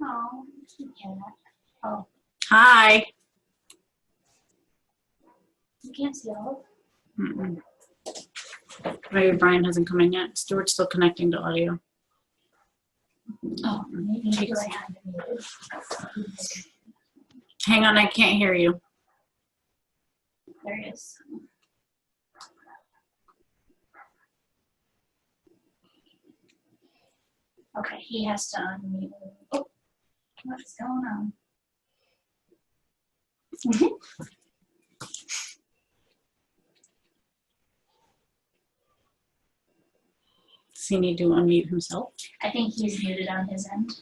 No, you can't. Hi. You can't see all. Mm-mm. Maybe Brian hasn't come in yet. Stuart's still connecting to audio. Oh, maybe you do. I have to mute. Hang on, I can't hear you. There it is. Okay, he has to unmute. Oh, what's going on? Does he need to unmute himself? I think he's muted on his end.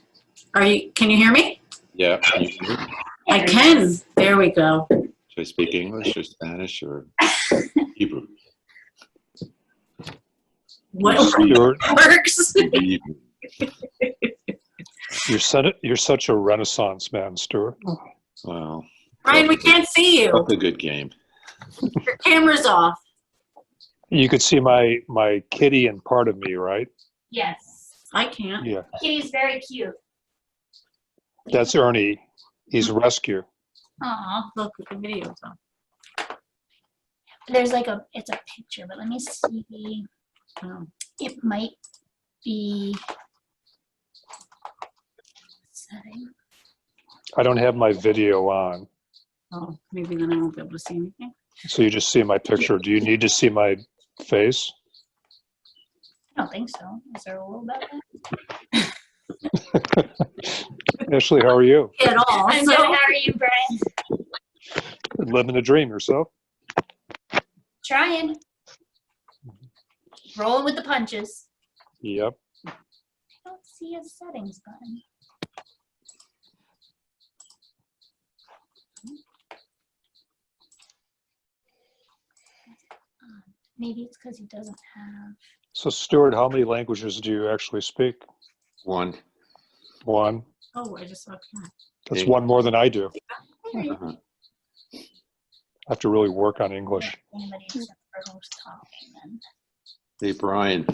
Are you, can you hear me? Yeah. can you hear me? I There he can. is. There we go. Should I speak English or Spanish or Hebrew? What Stuart, works? Hebrew. you're such, you're such a renaissance man, Stuart. Well, Brian, we can't see you. that's a good game. Your camera's off. You could see my, my kitty and part of me, right? Yes. I can't. Yeah, Kitty's very cute. that's Ernie. He's a rescue. Aw, look at the video. though. There's like a, it's a picture, but let me see. Oh. It might be. setting. I don't have my video on, Oh, maybe then I won't be able to see anything. so you just see my picture. Do you need to see my face? I don't think so. Is there a little bit? Ashley, how are you? At all. I'm good. How so- are you, Brian? Living the dream yourself? Trying. Rolling with the punches. Yep. I don't see a settings button. Maybe it's because he doesn't have. So Stuart, how many languages do you actually speak? One. One. Oh, I just saw a cat. That's one more than I do. There you Uh-huh. I have to really work on go. English. Anybody except for who's talking then. Hey, Brian,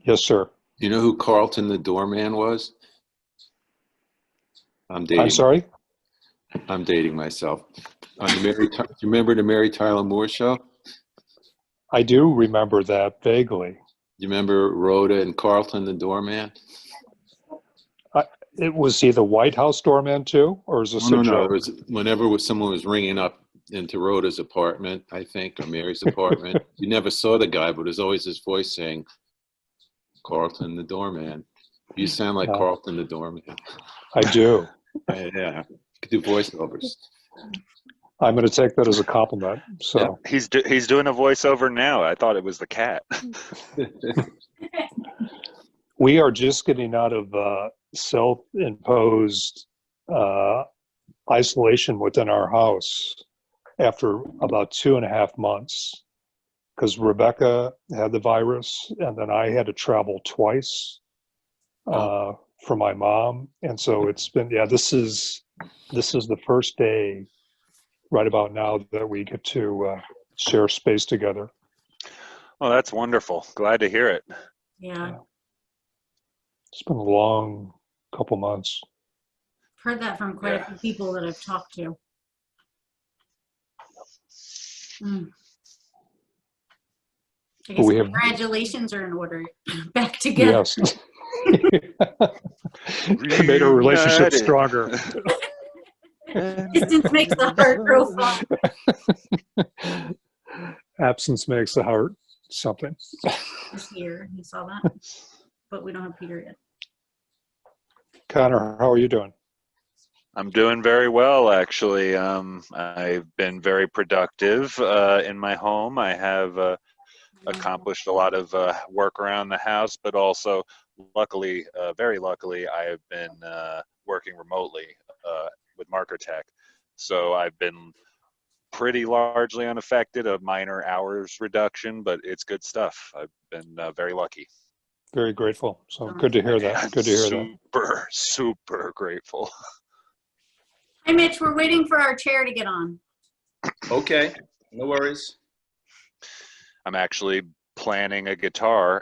Yes, sir. you know who Carlton the doorman was? I'm dating. I'm sorry? I'm dating myself. On the Mary, Ty- do you remember the Mary Tyler Moore show? I do remember that vaguely. You remember Rhoda and Carlton the doorman? It was he the White House doorman too, or is this No, a no, no. It joke? was whenever was someone was ringing up into Rhoda's apartment, I think, or Mary's apartment. you never saw the guy, but there's always this voice saying, "Carlton the doorman." You sound like Yeah. Carlton the doorman. I do. yeah, you could do voiceovers. I'm going to take that as a compliment. So He's do- he's doing a voiceover now. I thought it was the cat. we are just getting out of uh, self-imposed uh, isolation within our house after about two and a half months because Rebecca had the virus, and then I had to travel twice uh, for my mom, and so it's been yeah. This is this is the first day right about now that we get to uh, share space together. Oh, that's wonderful. Glad to hear it. Yeah, It's been a long couple months. heard that from quite a few people that I've talked to. Mm. I guess We have- congratulations are in order. Back together. Yes. It made our relationship Reunited. stronger. Distance makes the heart grow fonder. Absence makes the heart something. He's here. You saw that? But we don't have Peter yet. Connor, how are you doing? I'm doing very well, actually. Um, I've been very productive uh, in my home. I have uh, accomplished a lot of uh, work around the house, but also, luckily, uh, very luckily, I have been uh, working remotely uh, with MarkerTech. So I've been pretty largely unaffected, a minor hours reduction, but it's good stuff. I've been uh, very lucky. Very grateful. So good to hear that. Good to hear that. Super, super grateful. Hi, Mitch. We're waiting for our chair to get on. okay, no worries. I'm actually planning a guitar